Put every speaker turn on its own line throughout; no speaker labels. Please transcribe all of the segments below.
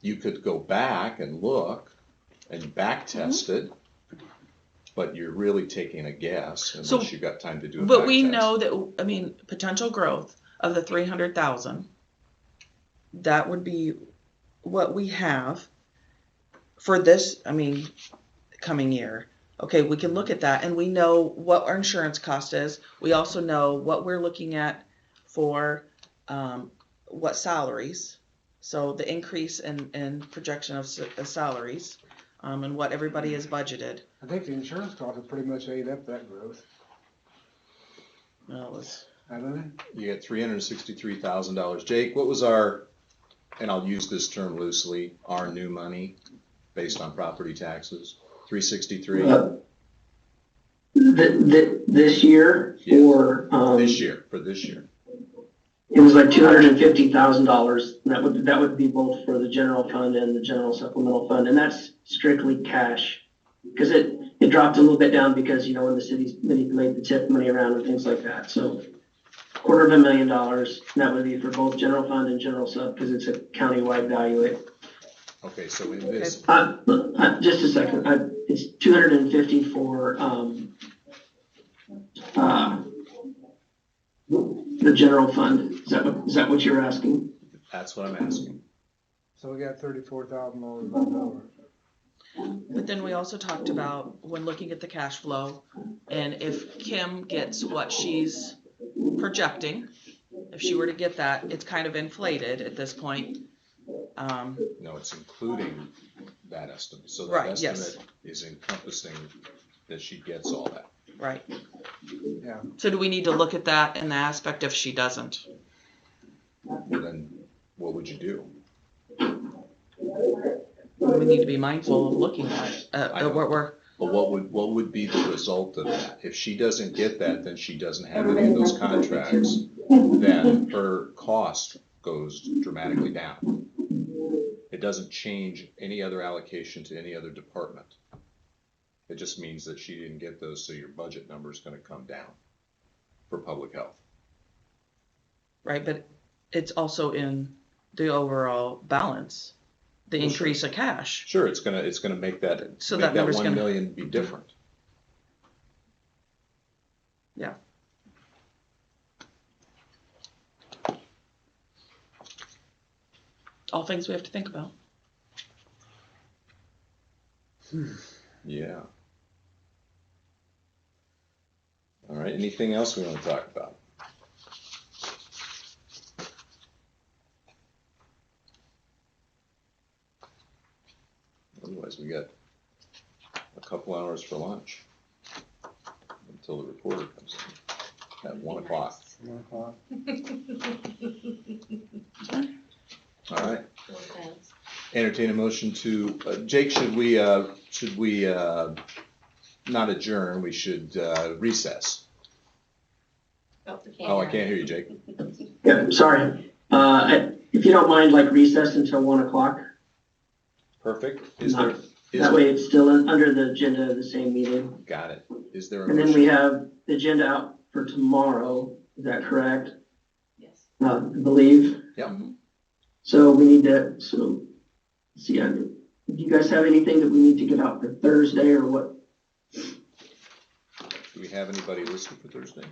you could go back and look and back
Mm-hmm.
test it. But you're really taking a guess
So-
unless you've got time to do a
But
back
we
test.
know that, I mean, potential growth of the three hundred thousand, that would be what we have for this, I mean, coming year. Okay, we can look at that and we know what our insurance cost is. We also know what we're looking at for, um, what salaries. So the increase in, in projection of s- of salaries, um, and what everybody is budgeted.
I think the insurance costs have pretty much ate up that growth,
Well, it's-
haven't they?
You get three hundred and sixty-three thousand dollars. Jake, what was our, and I'll use this term loosely, our new money based on property taxes? Three sixty-three
Uh, Th- th- this year
Yes.
or, um,
this year, for this year.
it was like two hundred and fifty thousand dollars. That would, that would be both for the general fund and the general supplemental fund, and that's strictly cash. Cause it, it dropped a little bit down because, you know, when the city's manipulated the tip money around and things like that, so. Quarter of a million dollars, and that would be for both general fund and general sub, cause it's a countywide value.
Okay, so in this,
Uh, uh, just a second, uh, it's two hundred and fifty for, um, uh, the general fund, is that what- is that what you're asking?
that's what I'm asking.
So we got thirty-four thousand dollars left over.
But then we also talked about when looking at the cash flow and if Kim gets what she's projecting, if she were to get that, it's kind of inflated at this point. Um,
No, it's including that estimate. So that
Right, yes.
estimate is encompassing that she gets all that.
right.
Yeah.
So do we need to look at that in the aspect if she doesn't?
Well, Then what would you do?
We need to be mindful of looking at, uh,
I
at what we're,
But what would, what would be the result of that? If she doesn't get that, then she doesn't have any of those contracts, then her cost goes dramatically down. It doesn't change any other allocation to any other department. It just means that she didn't get those, so your budget number is gonna come down for public health.
right, but it's also in the overall balance, the
Well, sure.
increase of cash.
Sure, it's gonna, it's gonna make that,
So that
make that
number's
one
gonna-
million be different.
All things we have to think about.
Yeah. All right, anything else we want to talk about? Otherwise, we got a couple hours for lunch until the reporter comes in at one o'clock.
One o'clock.
All right,
Okay.
entertain a motion to, uh, Jake, should we, uh, should we, uh, not adjourn, we should, uh, recess? Oh, I can't hear you, Jake.
Yeah, sorry, uh, I- if you don't mind, like recess until one o'clock,
Perfect. Is there, is
that way it's still in- under the agenda of the same meeting.
got it. Is there a
And then we
motion?
have the agenda out for tomorrow, is that correct?
Yes.
Uh, I believe.
Yep.
So we need to, so, see, I, do you guys have anything that we need to get out for Thursday or what?
Do we have anybody listed for Thursday?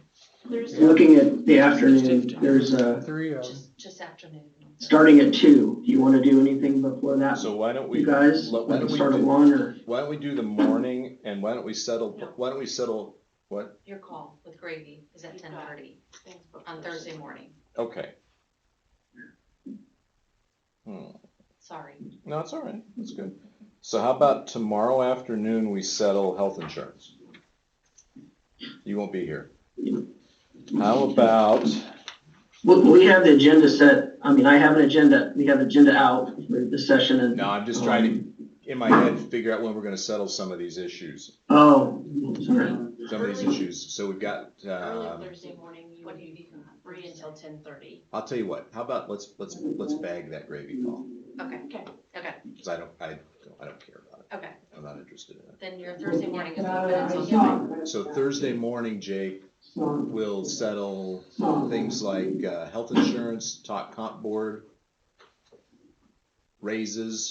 There's
Looking at the afternoon, there's uh
Three of them.
just, just afternoon.
starting at two, do you wanna do anything before that?
So why don't we,
Uh, You
why
guys,
let-
we
why don't
can
we
start at
do-
one or,
don't we do the morning and why don't we settle, why don't we settle, what?
Your call with Gravy is at ten thirty on Thursday morning.
Okay. Hmm,
Sorry.
No, it's all right. It's good. So how about tomorrow afternoon, we settle health insurance? You won't be here. How about,
well, we have the agenda set, I mean, I have an agenda, we have agenda out for the session and.
no, I'm just trying to, in my head, figure out when we're gonna settle some of these issues.
Oh, sorry,
some of these issues. So we've got, um,
Thursday morning, you would be free until ten thirty.
I'll tell you what, how about let's, let's, let's bag that gravy call,
Okay. Okay. Okay,
because I don't, I, don't- I don't care about it.
okay.
I'm not interested in it.
Then your Thursday morning is open until ten.
So Thursday morning, Jake, we'll settle things like, uh, health insurance, talk comp board. raises